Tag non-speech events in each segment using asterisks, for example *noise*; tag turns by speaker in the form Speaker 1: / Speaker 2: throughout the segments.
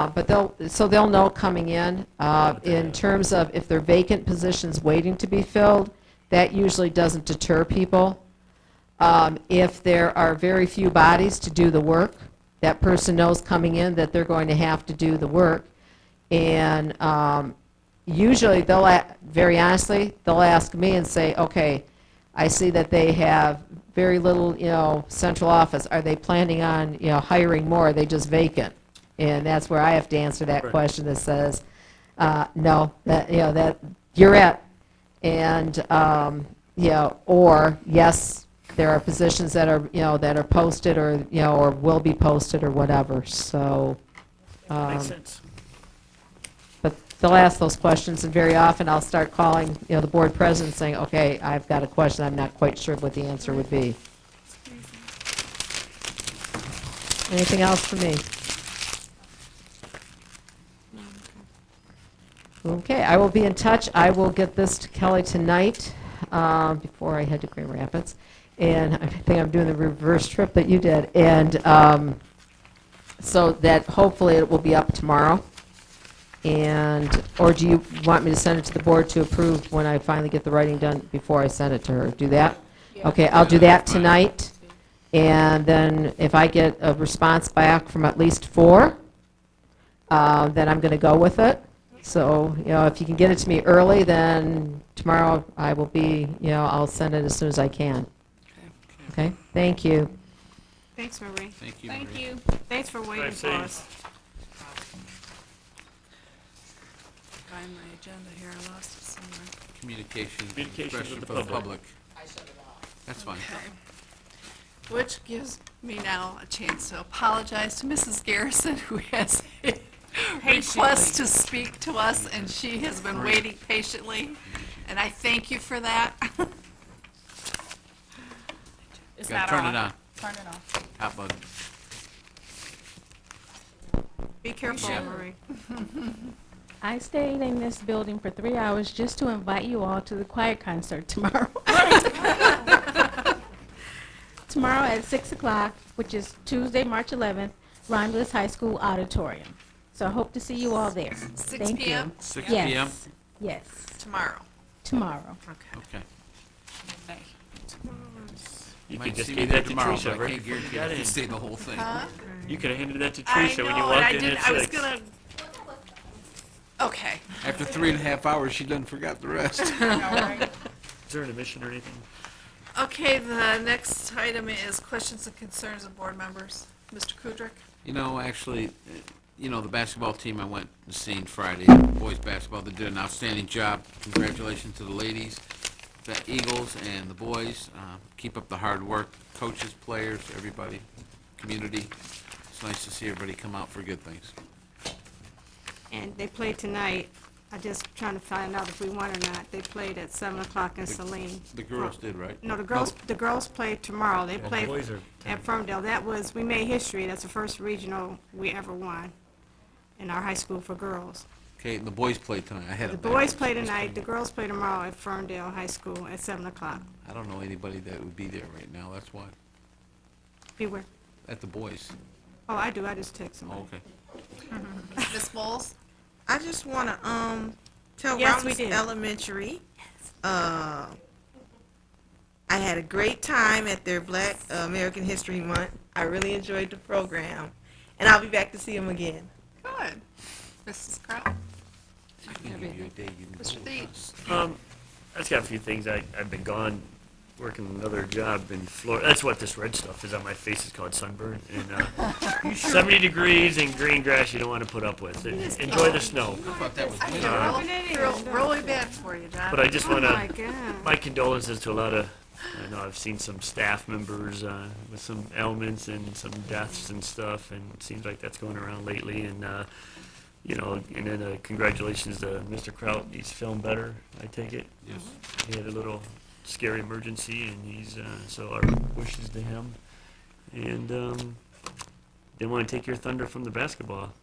Speaker 1: Uh, But they'll, so they'll know coming in. Uh, In terms of if there are vacant positions waiting to be filled, that usually doesn't deter people. Um, If there are very few bodies to do the work, that person knows coming in that they're going to have to do the work. And um, usually, they'll, a- very honestly, they'll ask me and say, okay, I see that they have very little, you know, central office. Are they planning on, you know, hiring more? Are they just vacant? And that's where I have to answer that
Speaker 2: Right.
Speaker 1: question that says, uh, no, that, you know, that, you're it. And, um, you know, or, yes, there are positions that are, you know, that are posted or, you know, or will be posted or whatever, so. um,
Speaker 2: Makes sense.
Speaker 1: but they'll ask those questions, and very often I'll start calling, you know, the board president saying, okay, I've got a question, I'm not quite sure what the answer would be. Anything else for me? Okay, I will be in touch. I will get this to Kelly tonight, um, before I head to Grand Rapids. And I think I'm doing the reverse trip that you did. And um, so that hopefully it will be up tomorrow. And, or do you want me to send it to the board to approve when I finally get the writing done before I send it to her? Do that? Okay, I'll do that tonight. And then if I get a response back from at least four, uh, then I'm going to go with it. So, you know, if you can get it to me early, then tomorrow I will be, you know, I'll send it as soon as I can. Okay, thank you.
Speaker 3: Thanks, Marie.
Speaker 4: Thank you,
Speaker 5: Thank
Speaker 4: Marie.
Speaker 5: you.
Speaker 3: Thanks for waiting
Speaker 2: Drive
Speaker 3: for
Speaker 2: safe.
Speaker 3: us.
Speaker 5: Find my agenda here, I lost it somewhere.
Speaker 4: Communication,
Speaker 2: Communications with
Speaker 4: expression
Speaker 2: the
Speaker 4: for the
Speaker 2: public.
Speaker 4: public. That's fine.
Speaker 5: Okay. Which gives me now a chance to apologize to Mrs. Garrison, who has *laughs* a request to speak to us, and she has been waiting patiently, and I thank you for that. It's
Speaker 4: Gotta turn it on,
Speaker 5: Turn it off.
Speaker 4: hot button.
Speaker 3: Be careful,
Speaker 4: Yeah.
Speaker 3: Marie.
Speaker 6: I stayed in this building for three hours just to invite you all to the choir concert tomorrow. tomorrow at 6 o'clock, which is Tuesday, March 11th, Romulus High School Auditorium. So I hope to see you all there.
Speaker 5: *laughs* Six
Speaker 6: Thank
Speaker 5: PM
Speaker 4: Six
Speaker 6: you.
Speaker 4: PM?
Speaker 6: Yes. Yes.
Speaker 5: tomorrow.
Speaker 6: Tomorrow.
Speaker 5: Okay.
Speaker 4: Okay.
Speaker 2: You
Speaker 4: Might
Speaker 2: could just
Speaker 4: see
Speaker 2: gave
Speaker 4: me there
Speaker 2: that to
Speaker 4: tomorrow,
Speaker 2: Tricia,
Speaker 4: but I
Speaker 2: right?
Speaker 4: can't guarantee
Speaker 2: Got
Speaker 4: I can
Speaker 2: in.
Speaker 4: stay the whole thing.
Speaker 2: You could have handed that to
Speaker 5: I
Speaker 2: Tricia
Speaker 5: know,
Speaker 2: when you
Speaker 5: and I
Speaker 2: walked in at
Speaker 5: didn't, I was
Speaker 2: six.
Speaker 5: gonna. Okay.
Speaker 4: After three and a half hours, she done forgot
Speaker 5: *laughs*
Speaker 4: the rest.
Speaker 2: Is there an admission or anything?
Speaker 5: Okay, the next item is questions and concerns of board members. Mr. Kudrick?
Speaker 4: You know, actually, uh, you know, the basketball team I went and seen Friday, boys basketball, they did an outstanding job. Congratulations to the ladies, the Eagles and the boys. Uh, Keep up the hard work, coaches, players, everybody, community. It's nice to see everybody come out for good things.
Speaker 3: And they played tonight. I just trying to find out if we won or not. They played at seven o'clock in Saline.
Speaker 4: The girls did, right?
Speaker 3: No, the girls, the girls played tomorrow. They played
Speaker 2: boys are
Speaker 3: at Ferndale. That was, we made history. That's the first regional we ever won in our high school for girls.
Speaker 4: Okay, and the boys played tonight. I had
Speaker 3: The
Speaker 4: it
Speaker 3: boys
Speaker 4: backwards.
Speaker 3: play tonight, the girls play tomorrow at Ferndale High School at seven o'clock.
Speaker 4: I don't know anybody that would be there right now, that's why.
Speaker 3: Beware.
Speaker 4: At the boys.
Speaker 3: Oh, I do. I just text them.
Speaker 4: Oh, okay.
Speaker 5: Ms. Bowles?
Speaker 7: I just want to um tell
Speaker 3: Yes, we
Speaker 7: Romulus
Speaker 3: did.
Speaker 7: Elementary. Uh, I had a great time at their Black uh, American History Month. I really enjoyed the program, and I'll be back to see them again.
Speaker 5: Good. Mrs. Crowe?
Speaker 4: I can give you a day you can
Speaker 5: Mr.
Speaker 4: go.
Speaker 5: Dees?
Speaker 2: Um, I just got a few things. I, I've been gone working another job in Florida. That's what this red stuff is on my face. It's called sunburn. And
Speaker 5: *laughs*
Speaker 2: uh, 70 degrees and green grass you don't want to put up with. Enjoy the snow.
Speaker 4: I thought that was winter.
Speaker 5: I feel real- real- really bad for you, John.
Speaker 2: But I just want
Speaker 3: Oh, my
Speaker 2: to,
Speaker 3: God.
Speaker 2: my condolences to a lot of, I know I've seen some staff members uh, with some ailments and some deaths and stuff, and it seems like that's going around lately. And, uh, you know, and then uh, congratulations to Mr. Kraut. He's feeling better, I take it.
Speaker 4: Yes.
Speaker 2: He had a little scary emergency, and he's, uh, so our wishes to him. And um, didn't want to take your thunder from the basketball,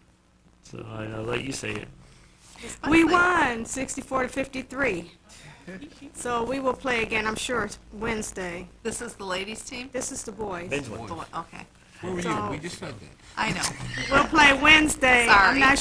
Speaker 2: so I- I'll let you say it.
Speaker 3: We won sixty-four to fifty-three. So we will play again, I'm sure, Wednesday.
Speaker 5: This is the ladies' team?
Speaker 3: This is the boys.
Speaker 2: Ben's one.
Speaker 5: The one- Okay.
Speaker 4: Where were you?
Speaker 3: So-
Speaker 4: We just said that.
Speaker 5: I know.
Speaker 3: We'll play Wednesday. I'm
Speaker 5: Sorry.
Speaker 3: not